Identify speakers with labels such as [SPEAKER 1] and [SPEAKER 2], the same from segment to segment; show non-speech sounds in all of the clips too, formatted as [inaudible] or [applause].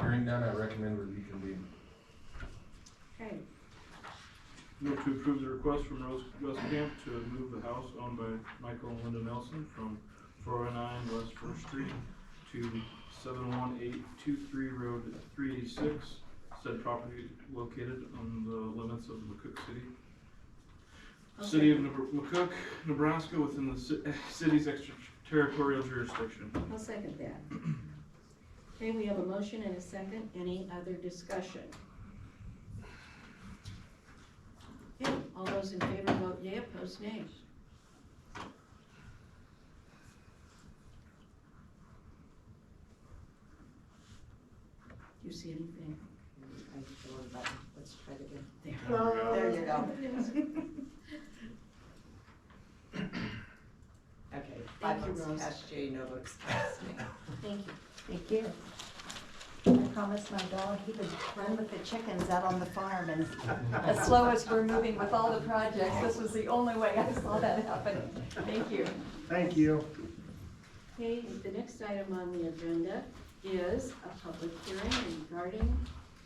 [SPEAKER 1] Hearing none, I recommend we reconvene.
[SPEAKER 2] Okay,
[SPEAKER 3] Move to approve the request from Rose Westcamp to move the house owned by Michael and Linda Nelson from four oh nine West First Street to seven one eight two three Road three eighty-six. Said property located on the limits of McCook City. City of Nebr- McCook, Nebraska, within the ci- eh, city's extraterritorial jurisdiction.
[SPEAKER 2] I'll second that. Okay, we have a motion and a second. Any other discussion? Okay, all those in favor vote yea, opposed nay. Do you see anything?
[SPEAKER 4] I hit the wrong button, let's try it again.
[SPEAKER 2] There
[SPEAKER 4] There you go.
[SPEAKER 2] [laughs]
[SPEAKER 4] Okay, five
[SPEAKER 2] Thank you, Rose.
[SPEAKER 4] votes cast yea, no votes cast
[SPEAKER 5] [laughs]
[SPEAKER 4] nay.
[SPEAKER 2] Thank you.
[SPEAKER 6] Thank you. I promised my dog he would run with the chickens out on the farm and as slow as we're moving with all the projects, this was the only way I saw that happen. Thank you.
[SPEAKER 5] Thank you.
[SPEAKER 2] Okay, the next item on the agenda is a public hearing regarding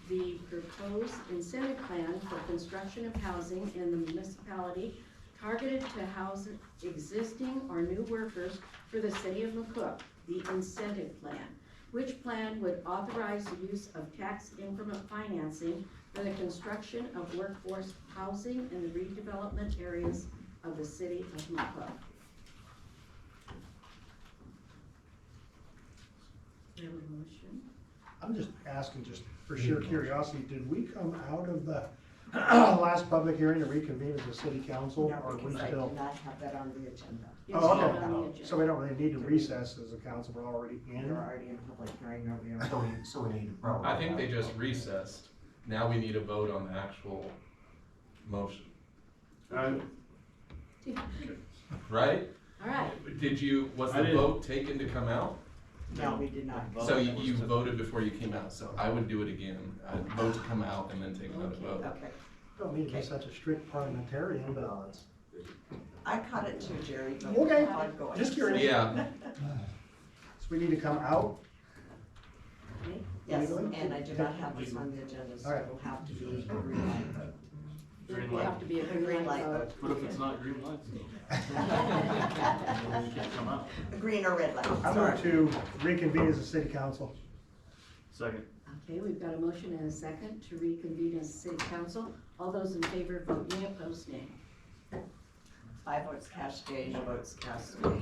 [SPEAKER 2] the proposed incentive plan for construction of housing in the municipality targeted to house existing or new workers for the city of McCook, the incentive plan. Which plan would authorize the use of tax increment financing for the construction of workforce housing in the redevelopment areas of the city of McCook. Do you have a motion?
[SPEAKER 5] I'm just asking, just for sheer curiosity, did we come out of the [clears throat] last public hearing to reconvene as a city council?
[SPEAKER 4] No,
[SPEAKER 5] or are we
[SPEAKER 4] because I do
[SPEAKER 5] still?
[SPEAKER 4] not have that on the agenda.
[SPEAKER 2] Yes,
[SPEAKER 5] Oh,
[SPEAKER 2] you're on the
[SPEAKER 5] okay.
[SPEAKER 2] agenda.
[SPEAKER 5] So we don't really need to recess as a council, we're already
[SPEAKER 4] We're
[SPEAKER 5] in.
[SPEAKER 4] already in public hearing, are we?
[SPEAKER 7] So we, so we need to probably.
[SPEAKER 1] I think they just recessed. Now we need a vote on the actual motion,
[SPEAKER 3] I,
[SPEAKER 1] right?
[SPEAKER 2] All right,
[SPEAKER 1] Did you, was
[SPEAKER 3] I
[SPEAKER 1] the
[SPEAKER 3] didn't-
[SPEAKER 1] vote taken to come out?
[SPEAKER 4] No, we did not.
[SPEAKER 1] So you, you voted before you came out, so I would do it again. I'd vote to come out and then take another vote.
[SPEAKER 4] Okay,
[SPEAKER 5] Don't need to be such a strict parliamentarian, but
[SPEAKER 4] I caught it too, Jerry. but
[SPEAKER 5] Okay,
[SPEAKER 4] I'm going.
[SPEAKER 5] just curious.
[SPEAKER 1] Yeah,
[SPEAKER 5] So we need to come out?
[SPEAKER 2] okay,
[SPEAKER 4] [laughs] Yes, and I do not have this on the agenda, so it will have to be a green light vote.
[SPEAKER 2] it will have to be a
[SPEAKER 4] Green
[SPEAKER 2] green light
[SPEAKER 4] light
[SPEAKER 2] vote.
[SPEAKER 3] what
[SPEAKER 5] Uh,
[SPEAKER 3] if it's not green lights? You can't come out.
[SPEAKER 4] A green or red light,
[SPEAKER 5] I'm
[SPEAKER 4] sorry.
[SPEAKER 5] going to reconvene as a city council.
[SPEAKER 3] Second.
[SPEAKER 2] Okay, we've got a motion and a second to reconvene as city council. All those in favor vote yea, opposed nay.
[SPEAKER 4] Five votes cast yea, no votes cast nay. Do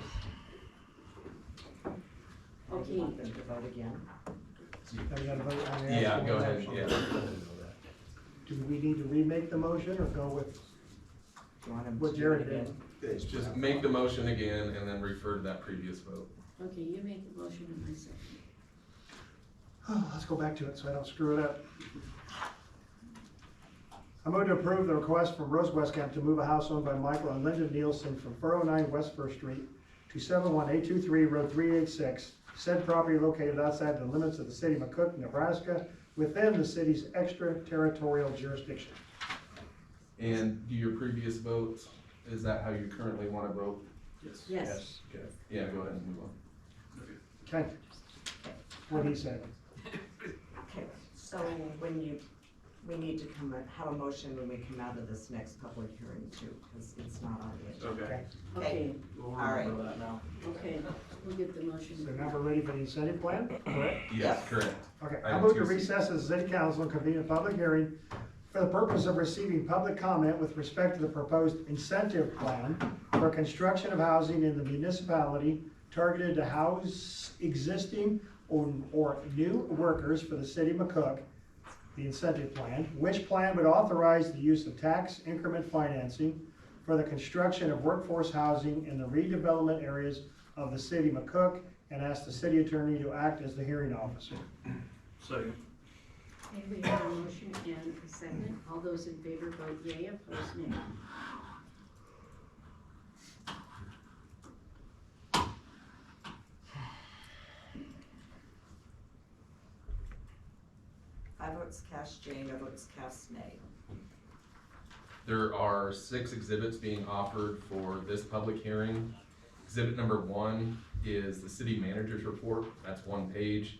[SPEAKER 4] you
[SPEAKER 2] Okay,
[SPEAKER 4] want them to vote again?
[SPEAKER 5] Now we gotta vote on the
[SPEAKER 1] yeah,
[SPEAKER 5] actual
[SPEAKER 1] go ahead,
[SPEAKER 5] motion.
[SPEAKER 1] yeah.
[SPEAKER 5] Do we need to remake the motion or go with,
[SPEAKER 4] Do you want them to
[SPEAKER 5] What
[SPEAKER 4] do
[SPEAKER 5] Jerry
[SPEAKER 4] it
[SPEAKER 5] did.
[SPEAKER 4] again?
[SPEAKER 1] Just make the motion again and then refer to that previous vote.
[SPEAKER 2] okay, you make the motion and I second.
[SPEAKER 5] Oh, let's go back to it so I don't screw it up. I move to approve the request from Rose Westcamp to move a house owned by Michael and Linda Nielsen from 409 West First Street to 71823 Road 386, said property located outside the limits of the city of McCook, Nebraska, within the city's extraterritorial jurisdiction.
[SPEAKER 1] And do your previous votes, is that how you currently want to vote?
[SPEAKER 3] Yes.
[SPEAKER 2] Yes,
[SPEAKER 1] Yeah, go ahead and move on.
[SPEAKER 5] Okay. What he said.
[SPEAKER 4] Okay, so when you, we need to come, and have a motion when we come out of this next public hearing too, because it's not on the agenda.
[SPEAKER 3] Okay,
[SPEAKER 2] okay,
[SPEAKER 3] we'll
[SPEAKER 4] All right.
[SPEAKER 3] remember that now.
[SPEAKER 2] okay, we'll get the
[SPEAKER 5] So
[SPEAKER 2] motion.
[SPEAKER 5] now we're ready for the incentive plan?
[SPEAKER 1] Yes, correct.
[SPEAKER 5] Okay, I
[SPEAKER 1] Item
[SPEAKER 5] move to
[SPEAKER 1] 2C.
[SPEAKER 5] recess as city council and convene a public hearing for the purpose of receiving public comment with respect to the proposed incentive plan for construction of housing in the municipality targeted to house existing or, or new workers for the city of McCook, the incentive plan, which plan would authorize the use of tax increment financing for the construction of workforce housing in the redevelopment areas of the city of McCook, and ask the city attorney to act as the hearing officer.
[SPEAKER 3] Second.
[SPEAKER 2] Okay, we have a motion and a second. All those in favor vote yea, opposed nay.
[SPEAKER 4] Five votes cast yea, no votes cast nay.
[SPEAKER 1] There are six exhibits being offered for this public hearing. Exhibit number one is the city manager's report, that's one page.